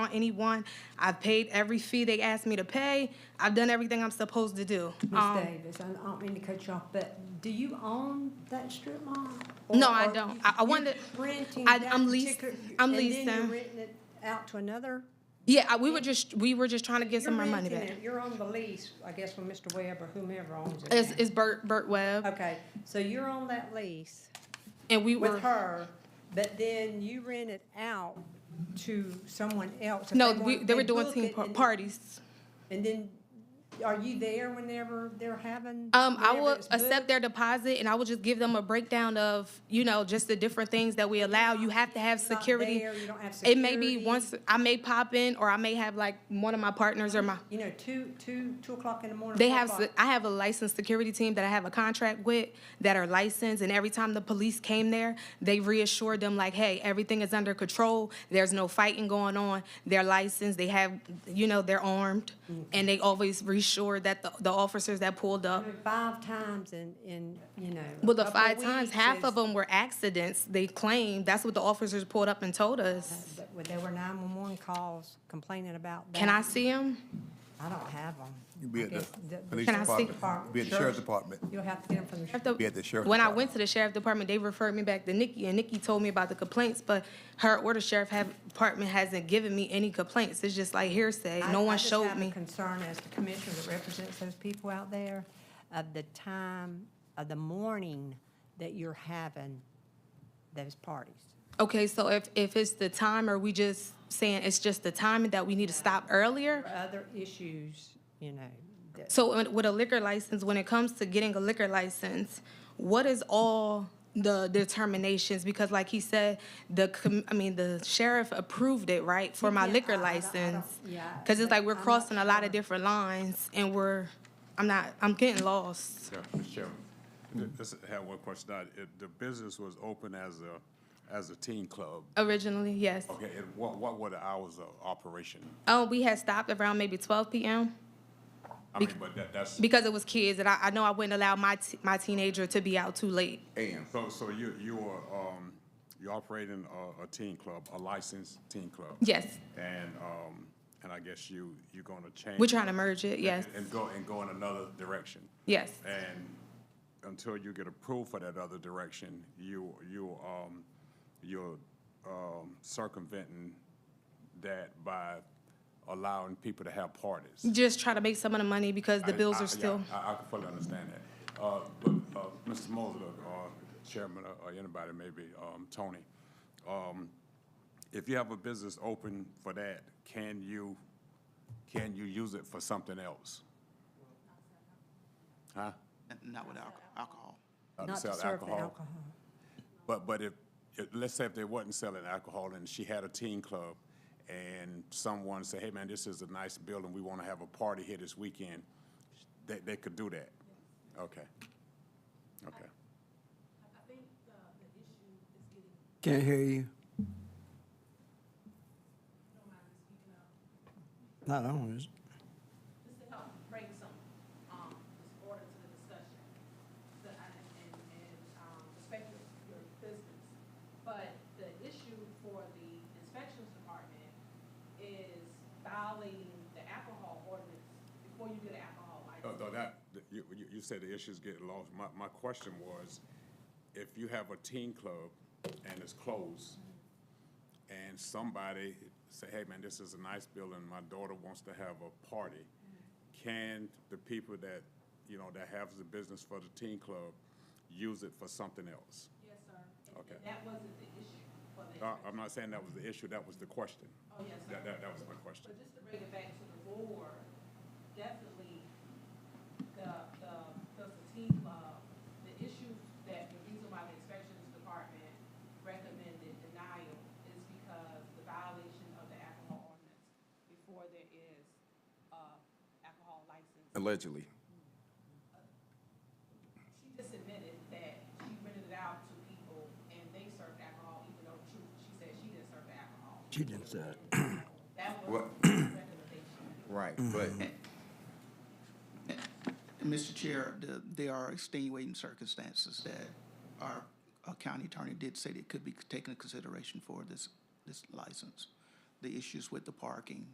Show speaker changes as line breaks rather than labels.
on anyone. I've paid every fee they asked me to pay. I've done everything I'm supposed to do.
Ms.
Um,
Davis, I I don't mean to cut you off, but do you own that strip mall?
No,
Or-
I
or
don't.
you-
I- I
you're
wanted-
Renting
I-
that
I'm leased-
particular-
I'm
And then
leasing.
you're renting it out to another?
Yeah, I- we were just, we were just trying to get some of
You're
our money
renting
back.
it. You're on the lease, I guess, with Mr. Webb or whomever owns it.
It's,
now.
it's Bert, Bert Webb,
Okay, so you're on that lease
and we
with
were,
her, but then you rent it out to someone else. if
no,
want-
we, they were doing
book
team
it
par-
and-
parties.
And then, are you there whenever they're having?
Um, I
whenever
will
it's booked?
accept their deposit and I will just give them a breakdown of, you know, just the different things that we allow. You have to have
Not
security.
there, you don't have
It may be
security.
once, I may pop in or I may have like one of my partners or my,
You know, two, two, two o'clock in the morning.
they
four
have,
o'clock.
se- I have a licensed security team that I have a contract with that are licensed. And every time the police came there, they reassured them like, hey, everything is under control. There's no fighting going on. They're licensed, they have, you know, they're armed. And they always reassured that the, the officers that pulled up.
Five times in, in, you know. a
Well, the
couple
five times,
weeks
half of
is-
them were accidents, they claimed. That's what the officers pulled up and told us.
But There were nine-one-one calls complaining about that.
Can I see them?
I don't have them.
You be at the police
Can I see-
department, be at the sheriff's department.
You'll have to get them from the sheriff.
Be at the sheriff's
When I went to the sheriff department, they referred me back to Nikki, and Nikki told me about the complaints, but her or the sheriff have- department hasn't given me any complaints. It's just like hearsay.
I-
No
I
one
just
showed
have a
me.
concern as the commissioner that represents those people out there of the time of the morning that you're having those parties.
Okay, so if, if it's the time, are we just saying it's just the timing that we need to stop earlier?
Other issues, you know, that,
So uh, with a liquor license, when it comes to getting a liquor license, what is all the determinations? Because like he said, the, com- I mean, the sheriff approved it, right, for my
Yeah, I-
liquor
I don't- I don't-
license?
yeah,
Because it's
but
like we're
I'm not
crossing a lot
sure.
of different lines and we're, I'm not, I'm getting lost.
Yeah, Mr. Chairman.
Hmm.
Just have one question. Now, if The business was open as a, as a teen club.
Originally, yes.
Okay, and what, what were the hours of operation?
Oh, we had stopped around maybe twelve PM
I mean, but that, that's,
because it was kids and I, I know I wouldn't allow my, t- my teenager to be out too late.
and so, so you, you are, um, you're operating a, a teen club, a licensed teen club?
Yes,
And, um, and I guess you, you're gonna change.
we're trying to merge it,
and-
yes,
And go, and go in another direction.
yes.
And until you get approved for that other direction, you, you, um, you're, um, circumventing that by allowing people to have parties.
Just try to make some of the money because the
I-
bills
I-
are still.
Yeah, I, I can fully understand that. Uh, but, uh, Mr. Mosley, or Chairman, uh, or- or anybody, maybe, um, Tony, um, if you have a business open for that, can you, can you use it for something else? Huh?
Not with alco- alcohol.
Uh,
not to
sell
serve the alcohol.
But, but if, if- let's say if they wasn't selling alcohol and she had a teen club and someone said, hey, man, this is a nice building, we want to have a party here this weekend, they, they could do that? Okay. Okay.
Can't hear you. Not on, is it?
just to help bring some, um, just order to the discussion. The, and, and, and, um, respect your, your business. But the issue for the inspections department is violating the alcohol ordinance before you get an alcohol license.
No, no, that, you, you- you said the issue's getting lost. My, my question was, if you have a teen club and it's closed, and somebody say, hey, man, this is a nice building, my daughter wants to have a party, can the people that, you know, that have the business for the teen club use it for something else?
Yes, sir. And-
Oh. Okay.
And that wasn't the issue for the,
Uh, I'm not saying that was the issue, that was the question.
oh, yes, sir.
That, that, that was my question.
But just to bring it back to the board, definitely the, the, because the teen club, the issue that, the reason why the inspections department recommended denial is because the violation of the alcohol ordinance before there is, uh, alcohol license.
Allegedly.
She just admitted that she rented it out to people and they served alcohol, even though she, she said she didn't serve the alcohol.
She didn't say it.
That was
What-
the recommendation.
Right, but.
Mm-hmm.
Mr. Chair, the, there are extenuating circumstances that our uh, county attorney did say that could be taken into consideration for this, this license. the issues with the parking,